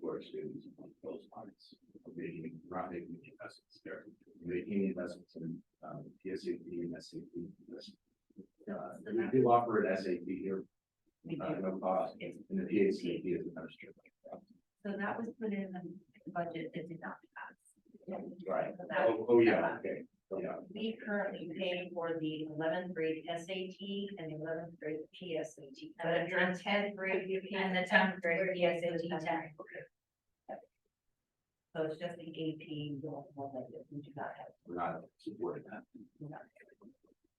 for students on those lines. of Making, not making the investments there, making investments in, um, PSAP and SAP. investments. Uh, we do offer an SAP here, We uh, do. no cost, and the PSAP is a membership. So that was put in the budget that did not pass. Right. So that- Oh, oh, yeah, okay, yeah, we currently pay for the eleventh grade SAT and eleventh grade PSAT. And the tenth- tenth grade. and the tenth grade PSAT PSAT. test. So it's just the AP, don't hold that, we do not have. we're not supporting that. we do not have.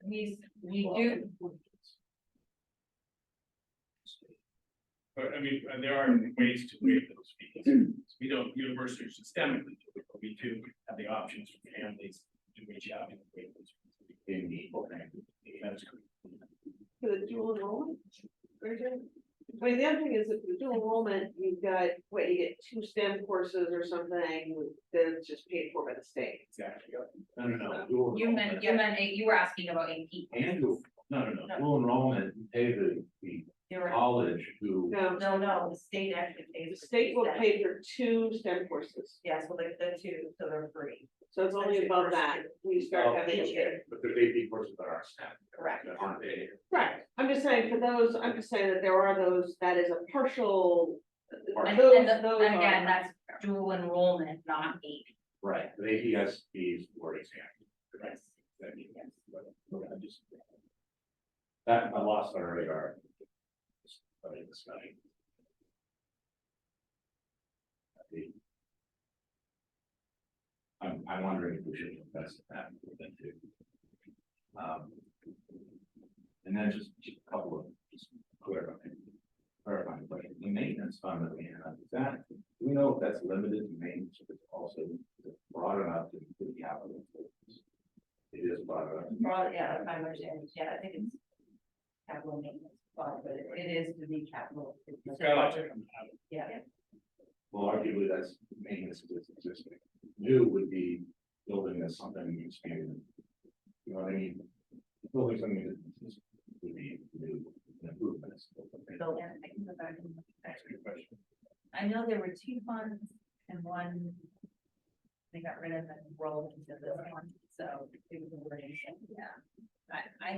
We, we do, But I mean, uh, there are ways to waive those fees. We don't universally systemically do it, but we do have the options for families to reach out and waive those. fees. In the program. That is correct. for the dual enrollment. version. But the other thing is if the dual enrollment, you've got, what, you get two STEM courses or something, that's just paid for by the state. Exactly. No, no, no. dual you enrollment. meant, you meant, you were asking about AP. And dual, No, no, no. dual enrollment, you pay the, the There are- college to No, No, no, the state actually the pays. for state will that. pay for two STEM courses, Yes, well, they're the two, so they're free. so it's only above that, we Oh. start having Each to pay. year, But the AP courses that are staff. correct. That aren't paid. Right, I'm just saying for those, I'm just saying that there are those, that is a partial. And, those- and the- those and again, are- that's dual enrollment, not AP. Right, but AP has fees for exam. Yes. That means- but- but I just- That I lost on our radar. I mean, this guy. I think- I'm, I'm wondering if we should invest in that with them too. Um. And then just just a couple of, just clarifying, clarifying questions, the maintenance fund that we have, is that, do we know if that's limited to maintenance, if it's also broad enough to include capital? It is broad enough. Well, yeah, if I understand, yeah, I think it's capital maintenance, fund, but it it is to be capital. It's got a lot to come out of it. Yeah, Well, arguably that's maintenance of this existing. New would be building as something expanded. You know what I mean? Building something that is- would be new improvements. so yeah, I can go back and look at Ask your question. that. I know there were two funds and one. They got rid of and rolled into this one, so it was a variation, yeah. I, I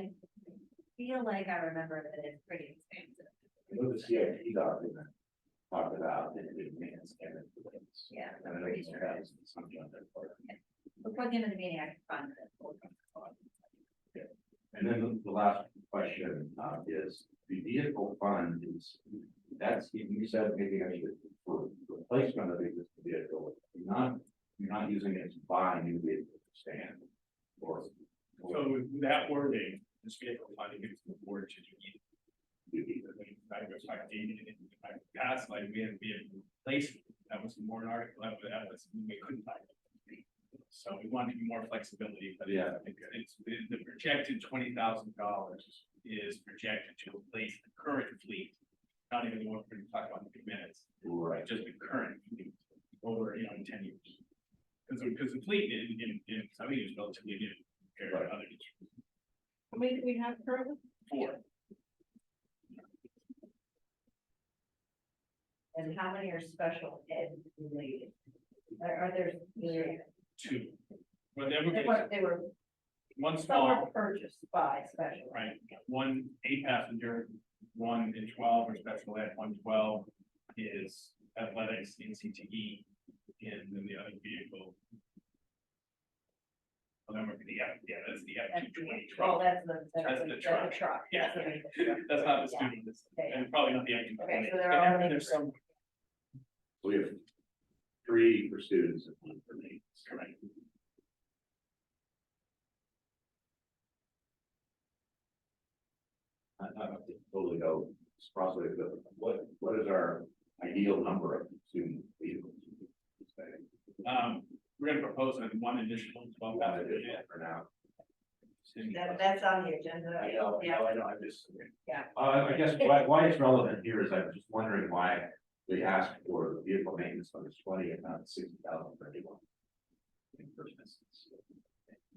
feel like I remember that it's pretty expensive, I know the CIP document talked about that it did maintenance and improvements. yeah, And I I'm know pretty it's sure. perhaps something on that part. Before the end of the meeting, I can find it. And then the last question, uh, is the vehicle fund is, that's, you said maybe I should, for replacement of the existing vehicle, you're not, you're not using it to buy a new vehicle to stand. Or, So or with that wording, this vehicle funding gives the board to do either. you I mean, if I was like, dating it in my past, like we had vehicle replacement, that was more an article, that was- that was, we couldn't find. it. So we wanted to be more flexibility, but yeah, Yeah. I think it's, the- the projected twenty thousand dollars is projected to replace the current fleet. Not even the one we're gonna talk about in a few minutes, were right. but just the current fleet over, you know, in ten years. Because, because the fleet in, in, in some years relatively new compared to other districts. How many do we have currently? Four, And how many are special ed related? Are, are there? two, but then we're They gonna- were, they were, one some small. were purchased by special. ed. Right, one eight passenger, one in twelve or special ed, one twelve is athletics in CTE. And then the other vehicle. Well, that would be the F, yeah, that's the F And- two twenty Oh, truck, that's the. That's the that's truck. Truck. Yeah. That's the truck. that's not the Yeah. student, that's- Yeah, yeah. and probably not the F two Okay, twenty. so there are. There's some, So we have three for students and one for me. correct, I, I don't totally go, it's probably, but what, what is our ideal number of student vehicles? um, we're gonna propose on one additional twelve About it passenger. is for now. That, that's on the agenda. I know, I Yeah, know, I know, I just. Yeah. Uh, I guess why, why it's relevant here is I'm just wondering why they asked for the vehicle maintenance on this twenty and not sixty thousand for anyone. In first instance.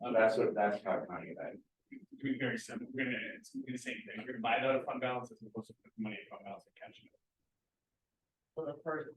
Uh, That's what, that's how I'm finding that. Doing very simple, we're gonna, it's gonna be the same thing, we're gonna buy it out of fund balance as opposed to put money in fund balance and catch it. for the first